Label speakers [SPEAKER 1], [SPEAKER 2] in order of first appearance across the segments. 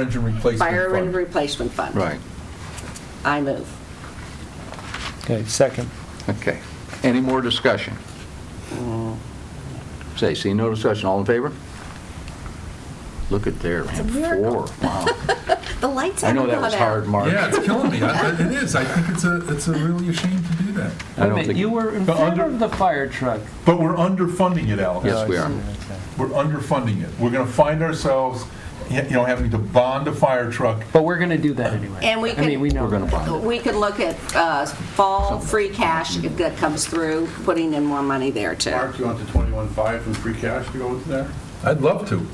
[SPEAKER 1] engine replacement
[SPEAKER 2] Fire and
[SPEAKER 1] fund.
[SPEAKER 2] replacement fund.
[SPEAKER 3] Right,
[SPEAKER 2] I move.
[SPEAKER 4] Okay, second.
[SPEAKER 3] okay. Any more discussion? Say, see, no discussion, all in favor? Look at there, man, four,
[SPEAKER 5] miracle.
[SPEAKER 3] wow.
[SPEAKER 5] The lights
[SPEAKER 3] I
[SPEAKER 5] haven't
[SPEAKER 3] know
[SPEAKER 5] gone out.
[SPEAKER 3] that was hard, Mark.
[SPEAKER 1] Yeah, it's killing me. I- It is. I think it's a, it's a really a shame to do that.
[SPEAKER 3] I
[SPEAKER 6] Wait a
[SPEAKER 3] don't
[SPEAKER 6] minute, you
[SPEAKER 3] think,
[SPEAKER 6] were in
[SPEAKER 1] The
[SPEAKER 6] favor
[SPEAKER 1] under-
[SPEAKER 6] of the fire truck.
[SPEAKER 1] But we're underfunding it, Alex.
[SPEAKER 6] uh,
[SPEAKER 3] yes, we are.
[SPEAKER 1] We're underfunding it. We're going to find ourselves, you know, having to bond a fire truck.
[SPEAKER 6] But we're going to do that anyway.
[SPEAKER 2] And we
[SPEAKER 6] I
[SPEAKER 2] can-
[SPEAKER 6] mean, we know.
[SPEAKER 3] We're going to
[SPEAKER 6] that.
[SPEAKER 3] bond it.
[SPEAKER 2] We could look at uh, fall free cash if that comes through, putting in more money there too.
[SPEAKER 7] Mark, you want the 21.5 from free cash to go into there?
[SPEAKER 1] I'd love to.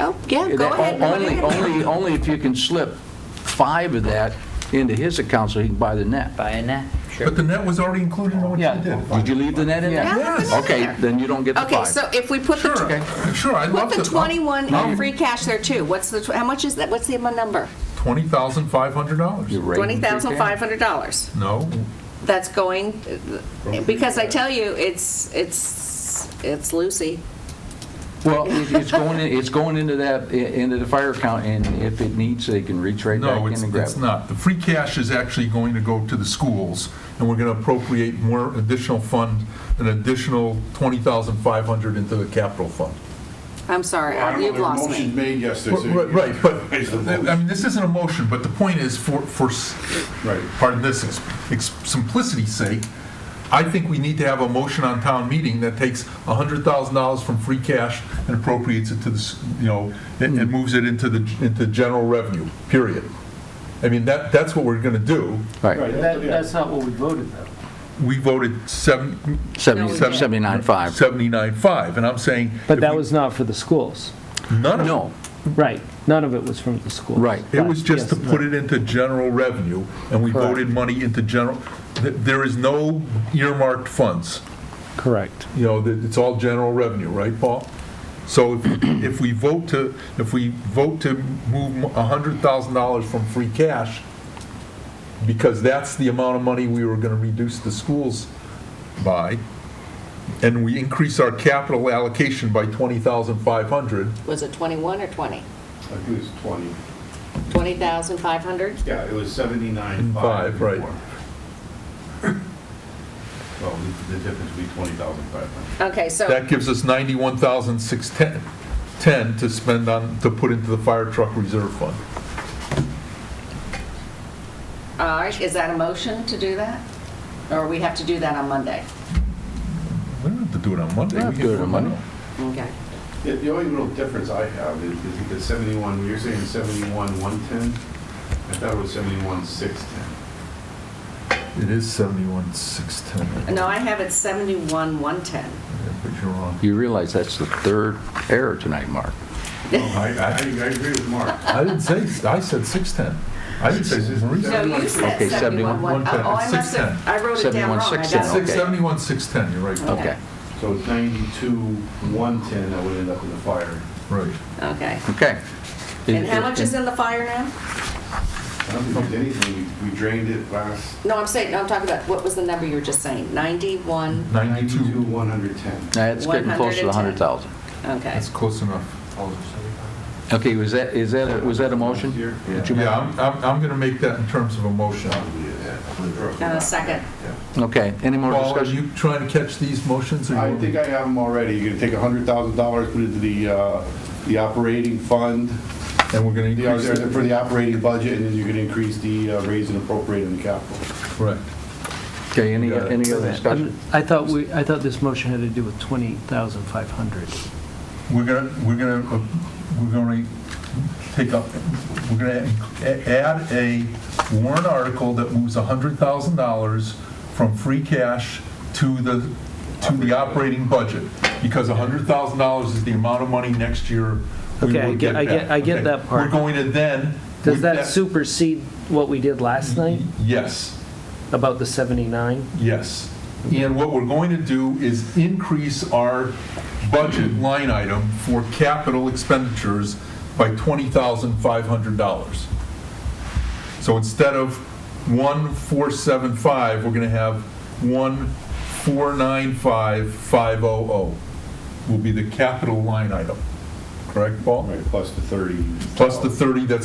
[SPEAKER 2] Oh, yeah, go
[SPEAKER 3] That-
[SPEAKER 2] ahead. and put it
[SPEAKER 3] Only,
[SPEAKER 2] in.
[SPEAKER 3] only, only if you can slip five of that into his account so he can buy the net.
[SPEAKER 8] Buy a net, sure.
[SPEAKER 1] But the net was already included in what you
[SPEAKER 6] Yeah.
[SPEAKER 1] did.
[SPEAKER 3] Did you leave the net in there?
[SPEAKER 2] Yeah, there's a net
[SPEAKER 3] Okay,
[SPEAKER 2] there.
[SPEAKER 3] then you don't get the
[SPEAKER 2] Okay,
[SPEAKER 3] five.
[SPEAKER 2] so if we put the,
[SPEAKER 1] Sure, sure, I'd love
[SPEAKER 2] put
[SPEAKER 1] to.
[SPEAKER 2] the 21
[SPEAKER 3] No.
[SPEAKER 2] in free cash there too, what's the, tw- how much is that, what's the number?
[SPEAKER 3] You're
[SPEAKER 1] $20,500.
[SPEAKER 3] right.
[SPEAKER 2] $20,500.
[SPEAKER 1] No,
[SPEAKER 2] That's going, because I tell you, it's, it's, it's Lucy.
[SPEAKER 3] Well, it- it's going, in- it's going into that, i- into the fire account, and if it needs, they can reach right back
[SPEAKER 1] no,
[SPEAKER 3] in
[SPEAKER 1] it's,
[SPEAKER 3] and grab
[SPEAKER 1] it's
[SPEAKER 3] it.
[SPEAKER 1] not. The free cash is actually going to go to the schools, and we're going to appropriate more additional fund, an additional 20500 into the capital fund.
[SPEAKER 2] I'm sorry,
[SPEAKER 7] Well, I don't know,
[SPEAKER 2] you've
[SPEAKER 7] there were
[SPEAKER 2] lost me.
[SPEAKER 7] motions made yesterday. so you
[SPEAKER 1] Right,
[SPEAKER 7] can-
[SPEAKER 1] right, but,
[SPEAKER 7] Raise the
[SPEAKER 1] I
[SPEAKER 7] vote.
[SPEAKER 1] mean, this isn't a motion, but the point is, for, for, s-
[SPEAKER 7] Right.
[SPEAKER 1] pardon this, ex- ex- simplicity's sake, I think we need to have a motion on town meeting that takes $100,000 from free cash and appropriates it to the, s- you know, and
[SPEAKER 3] Hmm.
[SPEAKER 1] and moves it into the, into general revenue, period. I mean, that, that's what we're going to do.
[SPEAKER 3] Right,
[SPEAKER 7] Right,
[SPEAKER 6] That,
[SPEAKER 7] yeah.
[SPEAKER 6] that's not what we voted though.
[SPEAKER 1] We voted seven- No,
[SPEAKER 3] Seventy-
[SPEAKER 1] we-
[SPEAKER 3] 79.5.
[SPEAKER 1] 79.5, and I'm saying.
[SPEAKER 4] But
[SPEAKER 1] if
[SPEAKER 4] that
[SPEAKER 1] we-
[SPEAKER 4] was not for the schools.
[SPEAKER 1] None of it.
[SPEAKER 3] No,
[SPEAKER 4] Right, none of it was from the schools.
[SPEAKER 3] Right.
[SPEAKER 1] It was just to
[SPEAKER 4] yes,
[SPEAKER 1] put it into general revenue, and we
[SPEAKER 4] Correct.
[SPEAKER 1] voted money into general, th- there is no earmarked funds.
[SPEAKER 4] Correct.
[SPEAKER 1] You know, that- it's all general revenue, right, Paul? So if- if we vote to, if we vote to move $100,000 from free cash, because that's the amount of money we were going to reduce the schools by, and we increase our capital allocation by 20,500,
[SPEAKER 2] Was it 21 or 20?
[SPEAKER 7] I think it's 20.
[SPEAKER 2] 20,500?
[SPEAKER 7] Yeah, it was 79.5.
[SPEAKER 1] Five, right.
[SPEAKER 7] before. Well, the the difference would be 20,500.
[SPEAKER 2] Okay, so,
[SPEAKER 1] That gives us 91,610 to spend on, to put into the fire truck reserve fund.
[SPEAKER 2] all right, is that a motion to do that? Or we have to do that on Monday?
[SPEAKER 1] We don't have to do it on Monday.
[SPEAKER 3] Yeah,
[SPEAKER 1] We can
[SPEAKER 3] do it on Monday.
[SPEAKER 1] now.
[SPEAKER 2] Okay.
[SPEAKER 7] The- The only real difference I have is is that 71, you're saying 71,110? I thought it was 71,610.
[SPEAKER 1] It is 71,610.
[SPEAKER 2] No, I have it 71, 110.
[SPEAKER 1] Yeah, But you're wrong.
[SPEAKER 3] you realize that's the third error tonight, Mark.
[SPEAKER 7] No, I I- I agree with Mark.
[SPEAKER 1] I didn't say, I said 610. I didn't say Marie said.
[SPEAKER 2] No, you said
[SPEAKER 3] Okay,
[SPEAKER 2] 71,
[SPEAKER 1] 71,110.
[SPEAKER 2] Oh, I must have,
[SPEAKER 1] 610.
[SPEAKER 2] I wrote it down wrong. I
[SPEAKER 3] 71,610,
[SPEAKER 2] got it.
[SPEAKER 1] Six-
[SPEAKER 3] okay.
[SPEAKER 1] 71,610, you're
[SPEAKER 7] Oh.
[SPEAKER 1] right.
[SPEAKER 3] Okay,
[SPEAKER 7] So it's 92,110 that would end up in the fire.
[SPEAKER 1] Right.
[SPEAKER 2] Okay.
[SPEAKER 3] okay.
[SPEAKER 2] And how much is in the fire now?
[SPEAKER 7] I don't think there's anything, we we drained it last
[SPEAKER 2] No, I'm saying, no, I'm talking about, what was the number you were just saying? 91,
[SPEAKER 1] 92,
[SPEAKER 7] 92,110.
[SPEAKER 3] That's getting close to the 100,000.
[SPEAKER 2] okay.
[SPEAKER 1] that's close enough.
[SPEAKER 3] Okay, was that, is that, was that a motion? Did you make-
[SPEAKER 1] Yeah, I'm, I'm, I'm going to make that in terms of a motion.
[SPEAKER 2] And a second.
[SPEAKER 3] Okay, any more
[SPEAKER 1] Paul, are
[SPEAKER 3] discussion?
[SPEAKER 1] you trying to catch these motions? or you
[SPEAKER 7] I
[SPEAKER 1] want me
[SPEAKER 7] think
[SPEAKER 1] to-
[SPEAKER 7] I have them already. You're gonna take $100,000, put it into the, uh, the operating fund,
[SPEAKER 1] And we're going
[SPEAKER 7] the-
[SPEAKER 1] to
[SPEAKER 7] or
[SPEAKER 1] increase.
[SPEAKER 7] the-
[SPEAKER 1] it?
[SPEAKER 7] for the operating budget, and then you're gonna increase the uh, raise and appropriate in the capital.
[SPEAKER 1] Correct.
[SPEAKER 3] Okay, any,
[SPEAKER 1] You got it.
[SPEAKER 3] any other
[SPEAKER 6] I'm-
[SPEAKER 3] discussion?
[SPEAKER 6] I thought we, I thought this motion had to do with 20,500.
[SPEAKER 1] We're gonna, we're gonna, uh, we're gonna take up, we're gonna a- add a warrant article that moves $100,000 from free cash to the, to the operating budget, because $100,000 is the amount of money next year we
[SPEAKER 6] Okay, I
[SPEAKER 1] will
[SPEAKER 6] get-
[SPEAKER 1] get
[SPEAKER 6] I get-
[SPEAKER 1] back.
[SPEAKER 6] I get
[SPEAKER 1] Okay.
[SPEAKER 6] that part.
[SPEAKER 1] We're going to then.
[SPEAKER 4] Does
[SPEAKER 1] with
[SPEAKER 4] that supersede what we did last night
[SPEAKER 1] Yes.
[SPEAKER 4] about the 79?
[SPEAKER 1] Yes. And what we're going to do is increase our budget line item for capital expenditures by $20,500. So instead of 1,475, we're going to have 1,495,500 will be the capital line item.
[SPEAKER 7] correct, Paul?
[SPEAKER 1] Right, plus the 30.
[SPEAKER 7] Plus the 30 that's